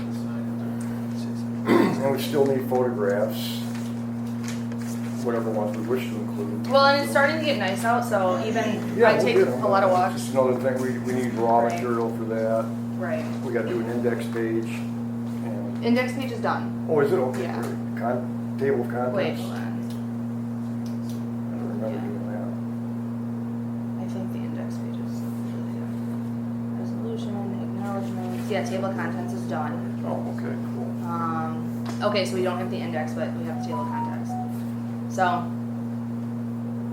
And we still need photographs, whatever ones we wish to include. Well, and it's starting to get nice out, so even Yeah, I we'll take get a 'em. lot of walks. Just another thing, we, we need raw Right. material for that. Right. We gotta do an index page. and- Index page is done. Oh, is it okay? Yeah. Con, table of Wait, contents? hold I on. don't remember Yeah. doing that. I think the index page is. really done. Resolution, acknowledgements. Yeah, table of contents is done. Oh, okay, cool. Um, okay, so we don't have the index, but we have the table of contents. So.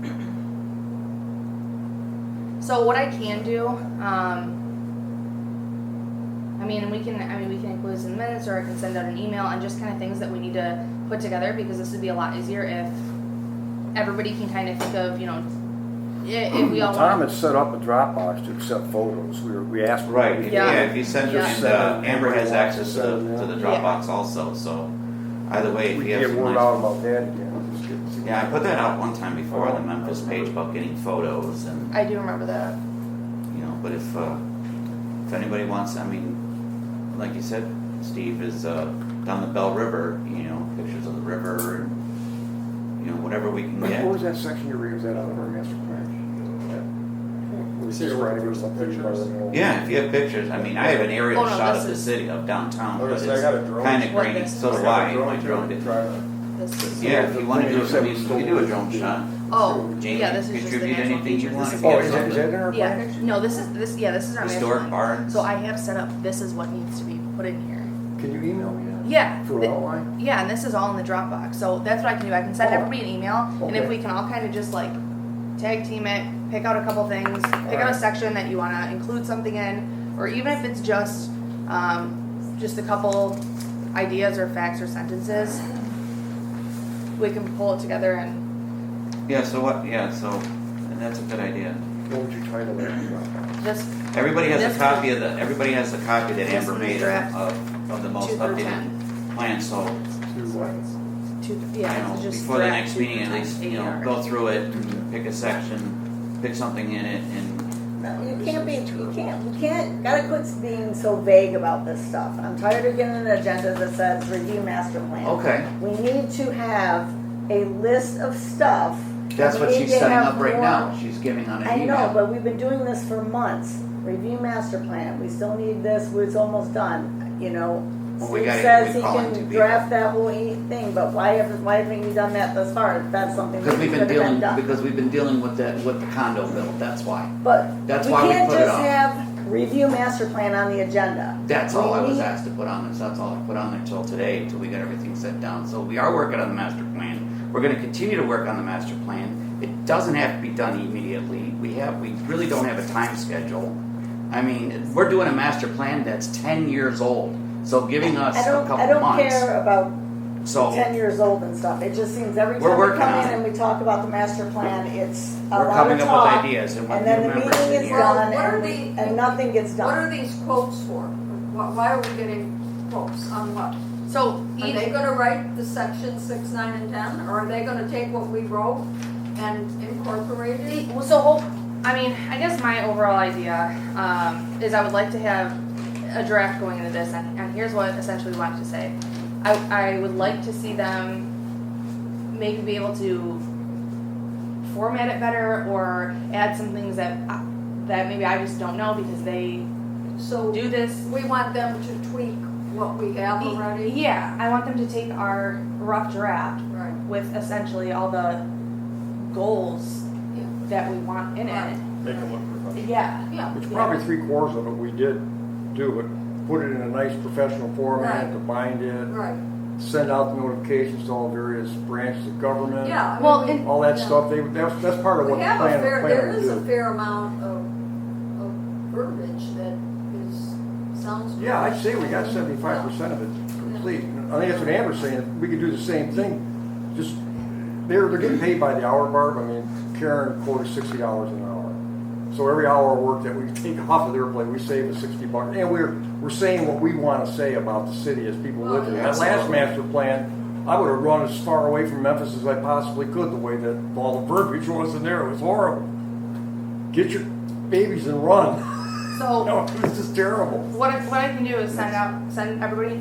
So what I can do, um, I mean, and we can, I mean, we can include some minutes or I can send out an email and just kind of things that we need to put together because this would be a lot easier if everybody can kind of think of, you know, i- if we all Tom want. had set up a Dropbox to accept photos. We were, we asked. him if Right, we could- Yeah. yeah, if you send it, Yeah. and uh, Amber has access to the, to the Yeah. Dropbox also, so either way, We if you can have get some word nice. out about that again. Just get- Yeah, I put that out one time before, the Memphis page about getting photos and, I do remember that. you know, but if, uh, if anybody wants, I mean, like you said, Steve is, uh, down the Bell River, you know, pictures of the river and, you know, whatever we can What get. was that section you read? Was that out of our master plan? We were So you're just trying to looking get for something pictures? environmental. Yeah, if you have pictures, I mean, I have an aerial Oh, no, shot this of the is- city of downtown, Okay, but it's so I got a drone. kinda What grainy, this? so do I, my drone did. This is. Yeah, if you wanna do, I mean, you can do a drone shot. Oh, Jamie, yeah, this is just the contribute national anything you feature. want. This is. Oh, is that, is that in our Yeah, plan? no, this is, this, yeah, this is our master Historic plan. barns. So I have set up, this is what needs to be put in here. Can you email me Yeah. that? For th- an outline? Yeah, and this is all in the Dropbox, so that's what I can do, I can send Oh. everybody an email, and if Okay. we can all kind of just like tag team it, pick out a couple things, pick out a Alright. section that you wanna include something in, or even if it's just, um, just a couple ideas or facts or sentences, we can pull it together and Yeah, so what, yeah, so, and that's a good idea. What would you title that? just Everybody has This- a copy of the, everybody has a copy that This Amber one is made draft of, of the most two through updated ten. plan, so, To what? Two, you yeah, know, it's just. before the direct next to meeting, at least, you know, AR. go through it, and pick a section, pick something in it, and, No, you can't be, you can't, you can't, gotta quit being so vague about this stuff. I'm tired of getting an agenda that says review master plan. Oh. okay. We need to have a list of stuff. That's We what need she's to setting have up right more- now, she's giving on an I know, email. but we've been doing this for months. Review master plan, we still need this, it's almost done, you know? Well, we Steve gotta- says we he call it to can be- draft that whole e- thing, but why haven't, why haven't you done that thus far? That's something Because that could we've been have been dealing, done. because we've been dealing with that, with the condo bill, that's why. But That's we why we can't put it just on. have review master plan on the agenda. That's all I was We- asked to put on this, that's all I put on there till today, till we got everything set down. So we are working on the master plan. We're gonna continue to work on the master plan. It doesn't have to be done immediately. We have, we really don't have a time schedule. I mean, we're doing a master plan that's ten years old, so giving us I a don't, I couple don't months, care about so. ten years old and stuff, it just seems every We're time we working come on in it. and we talk about the master plan, it's a We're lot of coming up with talk. ideas and what And new then the members in meeting is here. done What are and, the- and nothing gets What are done. these quotes for? Why why are we getting quotes on what? So Are each they gonna write the section six, nine, and ten, or are they gonna take what we wrote and incorporate it? Well, So, whole, I mean, I guess my overall idea um, is I would like to have a draft going into this, and, and here's what essentially we wanted to say. I, I would like to see them maybe be able to format it better or add some things that I- that maybe I just don't know because they So do this. we want them to tweak what we have already? Yeah, I want them to take our rough draft Right. with essentially all the goals that we want in it. Make it look professional. Yeah. Yeah. Which probably three quarters of it we did do, but put it in a nice professional format, Right. to bind it, Right, send out the notifications to all various branches of government. yeah. I Well, mean, we- and- All that yeah. stuff, they, that's, that's part of Uh, what We the have a plan, fair, the there plan is a would do. fair amount of, of verbiage that is, sounds. Yeah, I'd say we got professional. seventy-five percent of it complete. I think that's what Amber's saying, we could do the same thing, just, they're, they're getting paid by the hour, Barb, I mean, Karen quoted sixty dollars an hour. So every hour of work that we take off of their plate, we save a sixty bucks, and we're, we're saying what we wanna say about the city as people live here. That last master plan, I would've run as far away from Memphis as I possibly could, the way that all the verbiage was in there, it was horrible. Get your babies and run, So no, it was just terrible. what I, what I can do is send out send everybody an